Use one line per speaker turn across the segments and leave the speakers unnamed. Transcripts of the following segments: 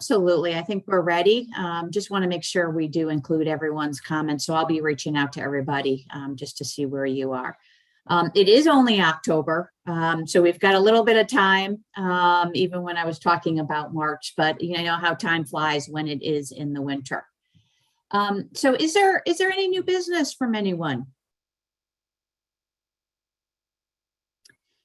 Absolutely. I think we're ready. Um, just want to make sure we do include everyone's comments. So I'll be reaching out to everybody, um, just to see where you are. Um, it is only October, um, so we've got a little bit of time, um, even when I was talking about March, but you know how time flies when it is in the winter. Um, so is there, is there any new business from anyone?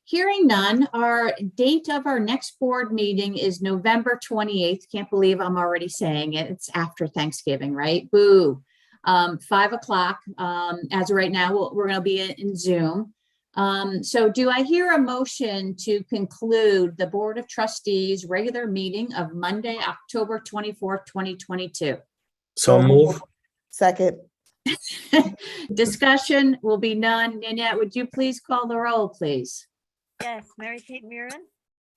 Hearing none, our date of our next board meeting is November 28th. Can't believe I'm already saying it. It's after Thanksgiving, right? Boo. Um, Five o'clock. Um, As of right now, we'll- we're going to be in- in Zoom. Um, So do I hear a motion to conclude the Board of Trustees' regular meeting of Monday, October 24th, 2022?
So move.
Second,
Discussion will be none. Nanette, would you please call the roll, please?
Yes, Mary Kate Murin,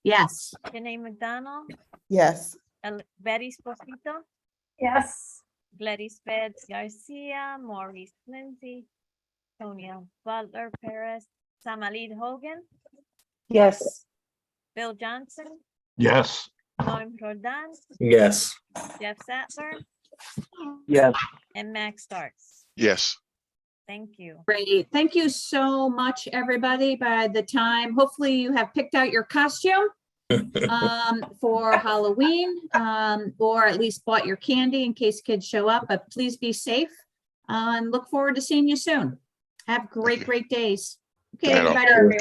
Yes.
Janae McDonald,
yes.
El- Betty Esposito,
Yes.
Gladys Betts Garcia, Maurice Lindsay, Tonya Butler Perez, Samalid Hogan,
Yes.
Bill Johnson,
Yes.
Norm Rodan,
Yes.
Jeff Sattler,
Yes.
and Max Starks.
Yes.
Thank you.
Great. Thank you so much, everybody. By the time, hopefully you have picked out your costume um, for Halloween, um, or at least bought your candy in case kids show up, but please be safe. uh, And look forward to seeing you soon. Have great, great days. Okay,
Right on.
everybody.